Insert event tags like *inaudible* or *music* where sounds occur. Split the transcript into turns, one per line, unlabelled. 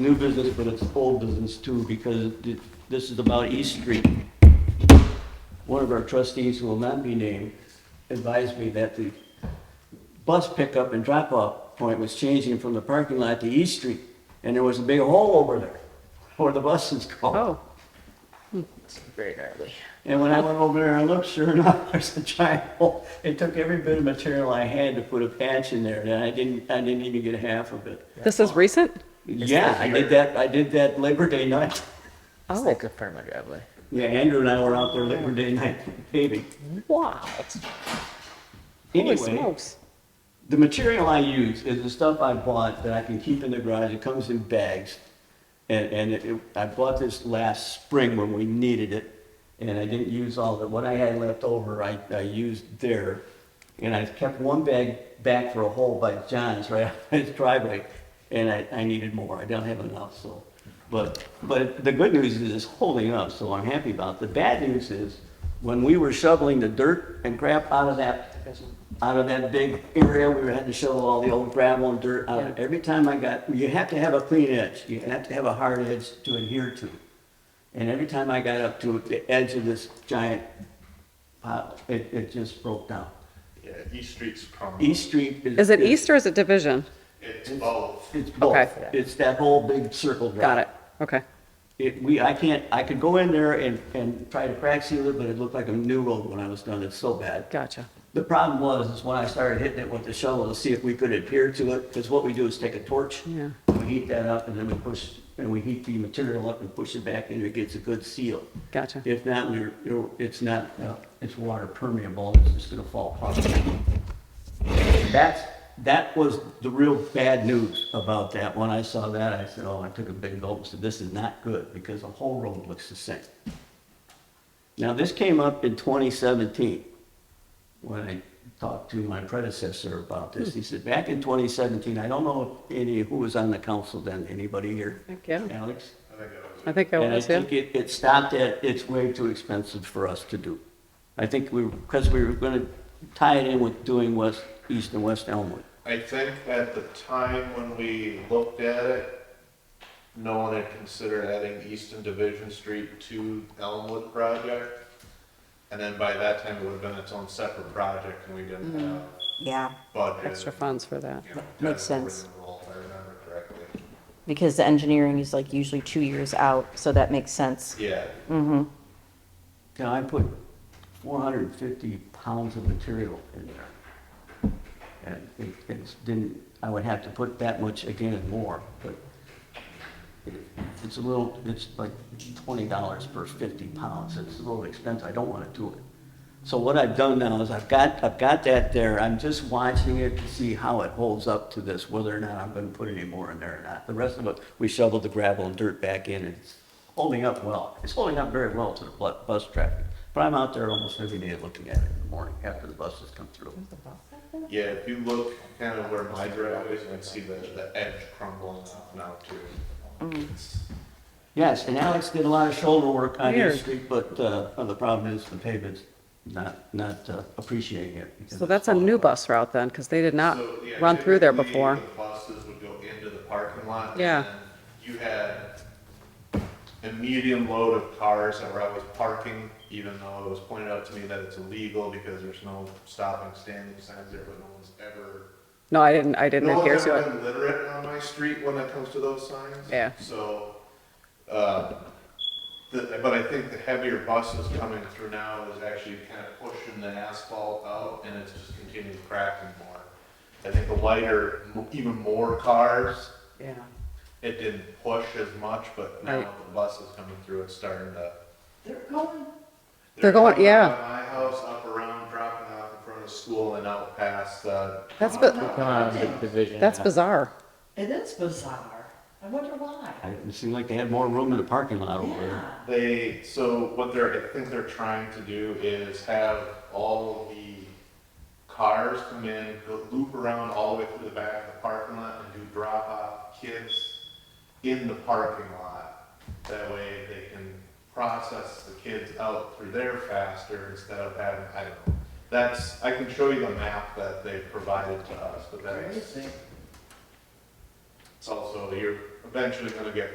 new business, but it's old business too, because th- this is about East Street. One of our trustees, who will not be named, advised me that the bus pickup and drop-off point was changing from the parking lot to East Street, and there was a big hole over there *laughs* where the buses go.
Oh. It's very early.
And when I went over there and looked, sure *laughs* enough, there's a giant hole. It took every bit of material I had to put a patch in there, and I didn't, I didn't even get half of it.
This is recent?
Yeah, I did that, I did that Labor Day night. *laughs*
Oh.
It's like a perma driveway.
Yeah, Andrew and I were out there Labor Day night paving.
Wow. Holy
Anyway,
smokes.
the material I use is the stuff I bought that I can keep in the garage. It comes in bags. And, and it, it- I bought this last spring when we needed it. And I didn't use all of it. What I had left over, I, I used there. And I kept one bag back for a hole by John's, right *laughs* out his driveway. And I, I needed more. I don't have enough, so. But, but the good news is it's holding up, so I'm happy about it. The bad news is, when we were shoveling the dirt and crap out of that, out of that big area, we had to shovel all the old gravel and dirt out. of it. Every time I got, you have to have a clean edge, you have to have a hard edge to adhere to. And every time I got up to the edge of this giant pile, it, it just broke down.
Yeah, East Street's common.
East Street is.
Is it east or is it division?
It's both.
It's both.
Okay.
It's that whole big circle. drive.
Got it. Okay.
It, we, I can't, I could go in there and, and try to crack seal it, but it looked like a new road when I was done, it's so bad.
Gotcha.
The problem was, is when I started hitting it with the shovel to see if we could adhere to it, because what we do is take a torch.
Yeah.
We heat that up and then we push, and we heat the material up and push it back and it gets a good seal.
Gotcha.
If not, we're, you're- it's not, uh, it's water permeable, it's just gonna fall apart. That's, that was the real bad news about that. When I saw that, I said, oh, I took a big gulp, and said, this is not good, because the whole road looks the same. Now, this came up in 2017, when I talked to my predecessor about this. He said, back in 2017, I don't know if any, who was on the council then, anybody here?
Thank you.
Alex?
I think that
I
was
think I
And I
was, yeah.
think it, it stopped at, it's way too expensive for us to do. I think we, because we were gonna tie it in with doing west, east and west Elmwood.
I think at the time when we looked at it, no one had considered adding Easton Division Street to Elmwood project. And then by that time, it would have been its own separate project and we didn't have
Yeah,
budget.
Extra funds for that.
you know,
Mm-hmm. Makes
kind of
sense.
roll, If I remember correctly.
because the engineering is like usually two years out, so that makes sense.
Yeah,
Now, I put four hundred and fifty pounds of material in there. And it, it's, didn't, I would have to put that much again and more, but it- it's a little, it's like twenty dollars per fifty pounds, it's a little expensive, I don't wanna do it. So what I've done now is I've got, I've got that there, I'm just watching it to see how it holds up to this, whether or not I'm gonna put any more in there or not. The rest of it, we shoveled the gravel and dirt back in, and it's holding up well, it's holding up very well to the bu- bus traffic. But I'm out there almost every day looking at it in the morning, after the buses come through.
yeah, if you look kind of where my driveway is, you can see the, the edge crumbling up now too.
Mm-hmm.
It's-
Yes, and Alex did a lot of shoulder work on
Weird.
East Street, but uh, the problem is the pavement's not, not uh, appreciating it. because
So
it's
that's a
falling
new
apart.
bus route then, because they did not
So, yeah,
run through there
typically,
before.
The buses would go into the parking lot. and
Yeah.
then You had a medium load of cars that were always parking, even though it was pointed out to me that it's illegal because there's no stopping, standing signs there, but no one's ever.
No, I didn't, I didn't
No
adhere
one's
to
ever
it.
been literate on my street when it comes to those signs.
Yeah.
So, um, the, but I think the heavier buses coming through now is actually kind of pushing the asphalt out and it's just continuing cracking more. I think the lighter, m- even more cars,
Yeah.
it didn't push as much, but now
Right.
with the buses coming through, it's starting to.
They're going-
coming
yeah.
up by My house up around, dropping off in front of school and out past, uh,
That's, bi-
Come on, the division.
that's bizarre.
It is bizarre. I wonder why.
I- It seemed like they had more room in the parking lot over there.
They, so what they're, I think they're trying to do is have all of the cars come in, go loop around all the way through the back of the parking lot and do drop off kids in the parking lot. That way they can process the kids out through there faster instead of having, I don't know. That's, I can show you the map that they provided to us, but that's,
Crazy.
it's also, you're eventually gonna get